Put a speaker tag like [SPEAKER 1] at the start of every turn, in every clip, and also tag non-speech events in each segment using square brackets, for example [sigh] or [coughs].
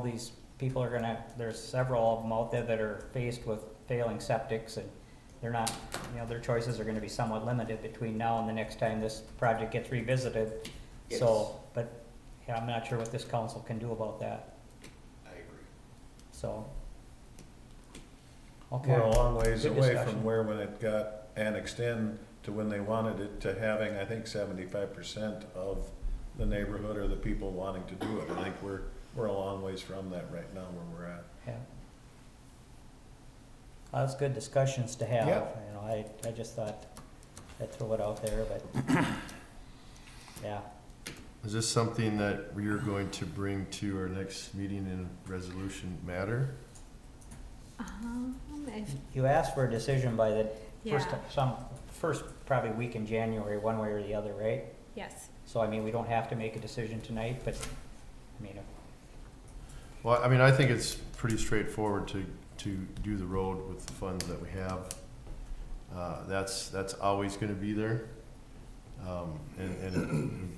[SPEAKER 1] All These people are gonna, there's several of them out there that are faced with failing septics and they're not, you know, their choices are gonna be somewhat limited between now and the next time this project gets revisited.
[SPEAKER 2] Yes.
[SPEAKER 1] So, but, yeah, I'm not sure what this council can do about that,
[SPEAKER 2] I agree.
[SPEAKER 1] so. Okay,
[SPEAKER 3] We're a long ways
[SPEAKER 1] Good
[SPEAKER 3] away
[SPEAKER 1] discussion.
[SPEAKER 3] from where when it got annexed in to when they wanted it to having, I think, seventy-five percent of the neighborhood or the people wanting to do it. I think we're, we're a long ways from that right now where we're at.
[SPEAKER 1] yeah. Well, That's good discussions to have,
[SPEAKER 3] Yeah.
[SPEAKER 1] you know, I, I just thought I'd throw it out there, but, [coughs] yeah.
[SPEAKER 4] Is this something that we are going to bring to our next meeting in a resolution matter?
[SPEAKER 5] Um, if,
[SPEAKER 1] You asked for a decision by the first,
[SPEAKER 5] Yeah.
[SPEAKER 1] some, first probably week in January, one way or the other, right?
[SPEAKER 5] yes,
[SPEAKER 1] So I mean, we don't have to make a decision tonight, but, I mean,
[SPEAKER 4] Well, I mean, I think it's pretty straightforward to, to do the road with the funds that we have. Uh, that's, that's always gonna be there. Um, and, and it'd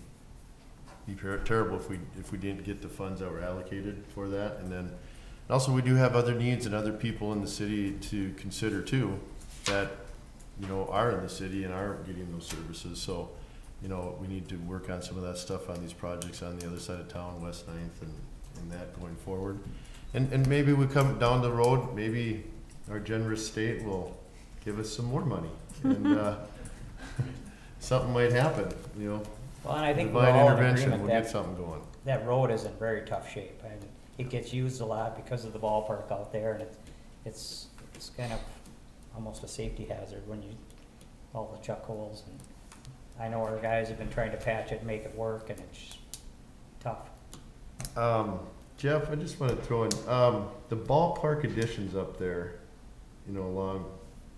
[SPEAKER 4] be per- terrible if we, if we didn't get the funds that were allocated for that. And then, and also, we do have other needs and other people in the city to consider too, that, you know, are in the city and are getting those services. So, you know, we need to work on some of that stuff on these projects on the other side of town, West Ninth and, and that going forward. And, and maybe we come down the road, maybe our generous state will give us some more money. And, uh, [laughs] something might happen, you know.
[SPEAKER 1] well, and I think we're
[SPEAKER 4] Divine
[SPEAKER 1] all in
[SPEAKER 4] intervention,
[SPEAKER 1] agreement
[SPEAKER 4] we'll get
[SPEAKER 1] that,
[SPEAKER 4] something going.
[SPEAKER 1] that road is in very tough shape. And it gets used a lot because of the ballpark out there and it's, it's, it's kind of almost a safety hazard when you, all the chuck holes and I know our guys have been trying to patch it, make it work and it's tough.
[SPEAKER 4] Um, Jeff, I just want to throw in um, the ballpark additions up there, you know, along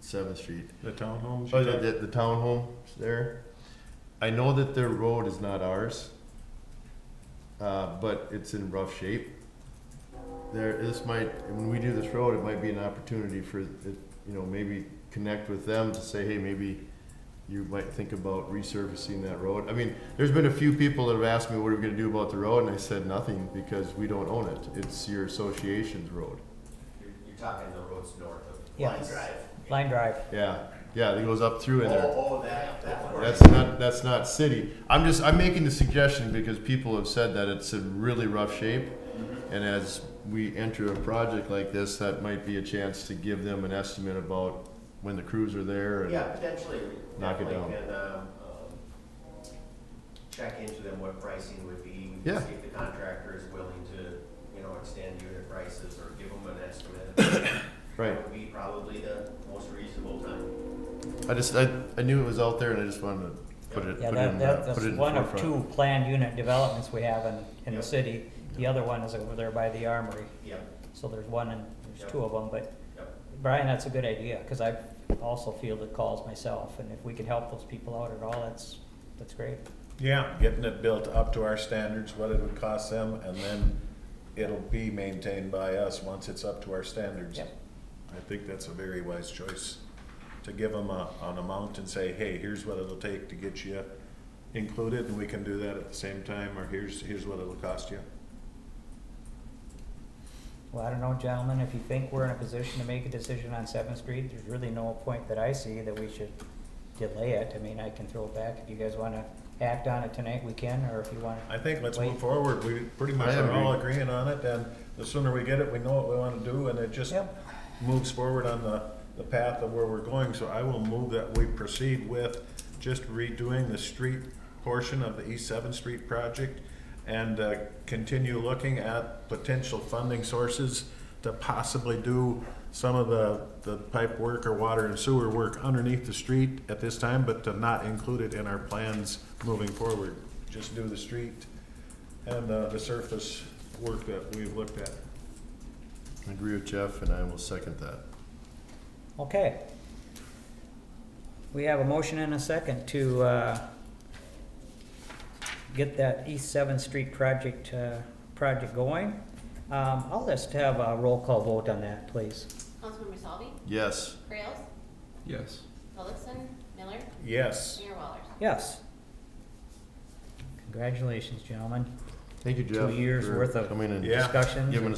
[SPEAKER 4] Seventh Street.
[SPEAKER 3] The townhomes?
[SPEAKER 4] Oh, the, the, the townhomes there. I know that their road is not ours, uh, but it's in rough shape. There, this might, when we do this road, it might be an opportunity for, it, you know, maybe connect with them to say, hey, maybe you might think about resurfacing that road. I mean, there's been a few people that have asked me, what are we gonna do about the road? And I said, nothing, because we don't own it. It's your association's road.
[SPEAKER 2] You're, you're talking the roads north of
[SPEAKER 1] Yeah.
[SPEAKER 2] Line Drive.
[SPEAKER 1] Line drive,
[SPEAKER 4] Yeah, yeah, it goes up through in there.
[SPEAKER 2] Oh, oh, that, that one.
[SPEAKER 4] That's not, that's not city. I'm just, I'm making the suggestion because people have said that it's in really rough shape. And as we enter a project like this, that might be a chance to give them an estimate about when the crews are there and.
[SPEAKER 2] Yeah, potentially. we
[SPEAKER 4] Knock it
[SPEAKER 2] definitely
[SPEAKER 4] down.
[SPEAKER 2] can, um, um, Check into them what pricing would be.
[SPEAKER 4] Yeah.
[SPEAKER 2] See if the contractor is willing to, you know, extend unit prices or give them an estimate.
[SPEAKER 4] [coughs] Right.
[SPEAKER 2] Would be probably the most reasonable time.
[SPEAKER 4] I just, I, I knew it was out there and I just wanted to put it,
[SPEAKER 1] Yeah,
[SPEAKER 4] put it in,
[SPEAKER 1] that, that,
[SPEAKER 4] the- put
[SPEAKER 1] that's
[SPEAKER 4] it in the
[SPEAKER 1] one of
[SPEAKER 4] forefront.
[SPEAKER 1] two planned unit developments we have in, in the
[SPEAKER 2] Yep.
[SPEAKER 1] city. The other one is over there by the armory,
[SPEAKER 2] Yep,
[SPEAKER 1] so there's one and, there's
[SPEAKER 2] Yep.
[SPEAKER 1] two of them, but
[SPEAKER 2] yep.
[SPEAKER 1] Brian, that's a good idea, cause I also fielded calls myself, and if we can help those people out at all, that's, that's great.
[SPEAKER 3] Yeah, getting it built up to our standards, what it would cost them, and then it'll be maintained by us once it's up to our standards.
[SPEAKER 1] Yep.
[SPEAKER 3] I think that's a very wise choice, to give them a, an amount and say, hey, here's what it'll take to get you included, and we can do that at the same time, or here's, here's what it'll cost you.
[SPEAKER 1] Well, I don't know, gentlemen, if you think we're in a position to make a decision on Seventh Street, there's really no point that I see that we should delay it. I mean, I can throw it back, if you guys wanna act on it tonight, we can, or if you wanna
[SPEAKER 3] I think let's
[SPEAKER 1] Wait.
[SPEAKER 3] move forward, we pretty much
[SPEAKER 4] I
[SPEAKER 3] are all
[SPEAKER 4] agree.
[SPEAKER 3] agreeing on it, and the sooner we get it, we know what we wanna do, and it just
[SPEAKER 1] Yep.
[SPEAKER 3] moves forward on the, the path of where we're going, so I will move that we proceed with just redoing the street portion of the East Seventh Street project, and, uh, continue looking at potential funding sources to possibly do some of the, the pipe work or water and sewer work underneath the street at this time, but to not include it in our plans moving forward. Just do the street and uh, the surface work that we've looked at.
[SPEAKER 4] I agree with Jeff and I will second that.
[SPEAKER 1] Okay. We have a motion and a second to uh, get that East Seventh Street project, uh, project going. Um, I'll just have a roll call vote on that, please.
[SPEAKER 6] Councilmember Salvi,
[SPEAKER 4] Yes,
[SPEAKER 6] Trails,
[SPEAKER 7] Yes.
[SPEAKER 6] Littleson, Miller,
[SPEAKER 3] Yes,
[SPEAKER 6] Mayor Wallers.
[SPEAKER 1] Yes. Congratulations, gentlemen.
[SPEAKER 4] thank you, Jeff.
[SPEAKER 1] years
[SPEAKER 4] for
[SPEAKER 1] worth of
[SPEAKER 4] Coming and
[SPEAKER 3] Yeah.
[SPEAKER 1] Discussions.
[SPEAKER 4] giving